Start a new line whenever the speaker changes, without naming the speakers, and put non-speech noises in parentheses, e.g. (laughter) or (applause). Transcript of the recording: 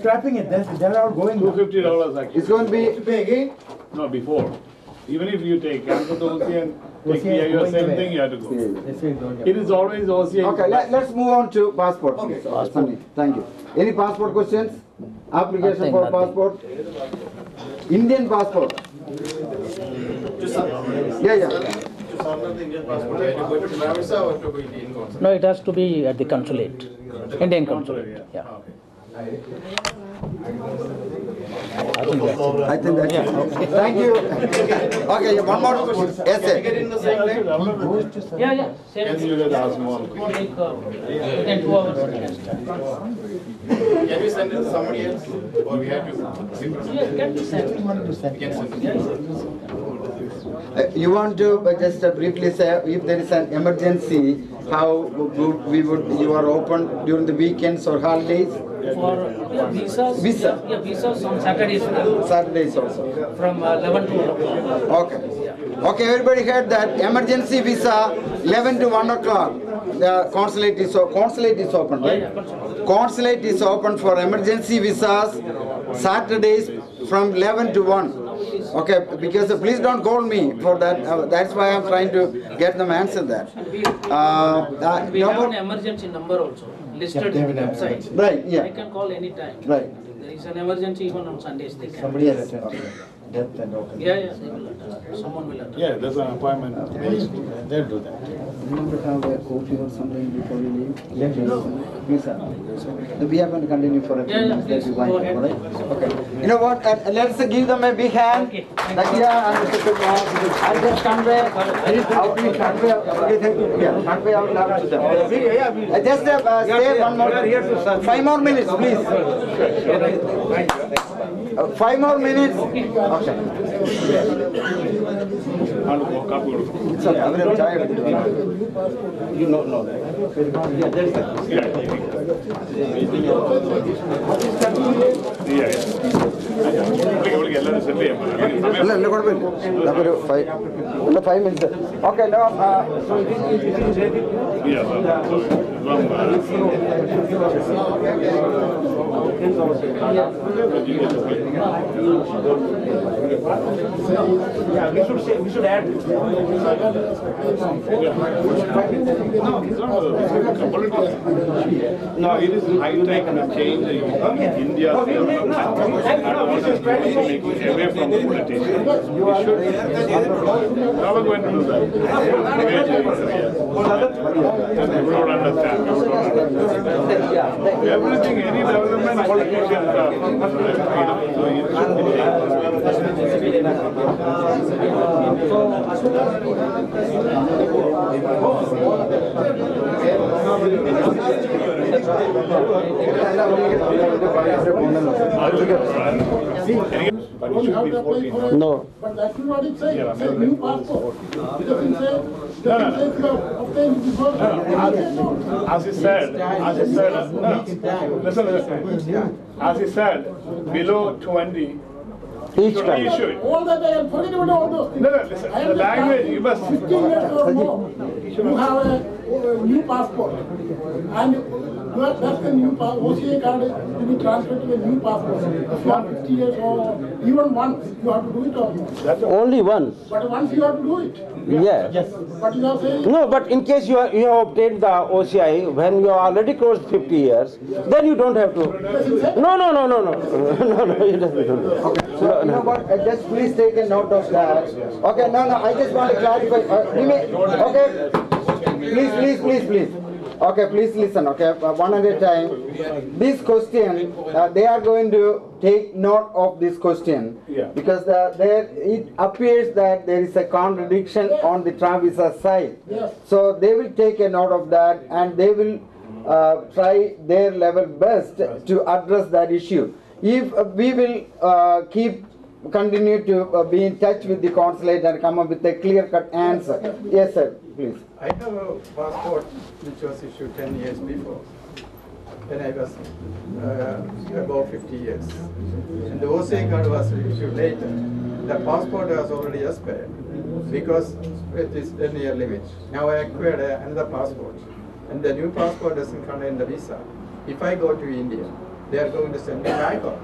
Trapping it, that's, they're all going.
Two
now.
fifty dollars actually.
It's going to be,
Pay again?
No, before. Even if you take, come to the OCI
(laughs)
and take
OCI is
PIO,
going
same
away.
thing you have to go.
okay,
They say don't have-
It is always OCI.
let, let's move on to passport,
Okay.
please. Okay, Sunny, thank you. Any passport questions? Application
Nothing,
for
nothing.
passport? Indian passport? Yeah, yeah.
No, it has to be at the consulate, Indian consulate, yeah. I think that's it.
I think that's it. Thank you. Okay, one more question. Essay.
Yeah, yeah, same.
And you get asked more.
Take, uh, within two hours, we can start.
Can we send it to somebody else or we have to?
Yeah, can be sent.
Uh, You want to uh, just uh, briefly say if there is an emergency, how good we would, you are open during the weekends or holidays?
For, yeah, visas.
Visa.
Yeah, visas on Saturdays uh,
Saturdays also.
from uh, eleven to one o'clock.
Okay. Okay, everybody heard that emergency visa, 11 to 1 o'clock. The consulate is, o- consulate is open, right? Consulate is open for emergency visas, Saturdays from 11 to 1. Okay, because uh, please don't call me for that, uh, that's why I'm trying to get them answer that.
We,
Uh, uh,
we have
no
an
more-
emergency number also listed in the website.
Right,
They
yeah,
can call anytime.
right.
There is an emergency even on Sundays they can.
Somebody has attended. Death and all.
Yeah, yeah, they will attend. Someone will attend.
Yeah, there's an appointment. They'll do that.
You want to have a coffee or something before you leave?
Yes, yes.
Visa. We are going to continue for a few
Yeah, yeah,
minutes. that we
please,
wind
go
up,
ahead.
all right? Okay. You know what, uh, let's give them a big hand.
Okay.
Nakia and Mr. Kumar, and just convey, how we convey, okay, thank you. Yeah, convey our love to them.
Oh,
Uh, Just uh, uh, stay one more, five more minutes, please. Uh, Five more minutes. Okay.
And go, copy it.
It's okay, I'm tired.
Yeah, yeah. Okay, okay, let us send it.
ಇಲ್ಲ ಇಲ್ಲ ಕೊಡ್ಬೇಕು ನಮ್ಮದು five ಇಲ್ಲ five minutes okay no
Yeah, so, long, uh,
Yeah, we should say, we should add.
No, it is high time to change the India. I want to try to make it away from the politicians. We should, now we're going to do that. And people don't understand, people don't understand. Everything, any development, politicians are. you know, so it's- it's- But it should be fourteen.
No
But that's not what it says,
Yeah,
it says new passport. It doesn't say, it doesn't say if you have obtained before. I said no.
As he said, as he said, no, listen, listen. As he said, below twenty,
Each
should
time.
be issued. No,
All that I am forgetting about all those things.
no, listen,
I am
the
just
language,
asking,
you must,
Fifteen years or more, you have a a new passport. And that- that's the new pa, OCA card is to be transferred to a new passport. If you are fifty years or even once, you have to do it or not.
Only one,
But once you have to do it,
yeah.
but you are saying.
No, but in case you are, you have obtained the OCI when you are already crossed fifty years, then you don't have to. No, no, no, no, (laughs) no, no, no, you don't. no, no.
So you know what? Uh, just please take a note of that. Okay, no, no. I just want to clarify. Uh, we may, okay, please, please, please, please. Okay, please listen. Okay, uh, one at a time. This question, uh, they are going to take note of this question
Yeah.
because the, there it appears that there is a contradiction on the Travisa side.
Yes.
So they will take a note of that and they will uh, try their level best to address that issue. If uh, we will uh, keep, continue to uh, be in touch with the consulate and come up with a clear cut answer. Yes, sir, please.
I have a passport which was issued ten years before, when I was uh, about fifty years. And the OCI card was issued later. The passport was already expired because it is ten year limit. Now I acquired a- another passport and the new passport doesn't contain the visa. If I go to India, they are going to send me back.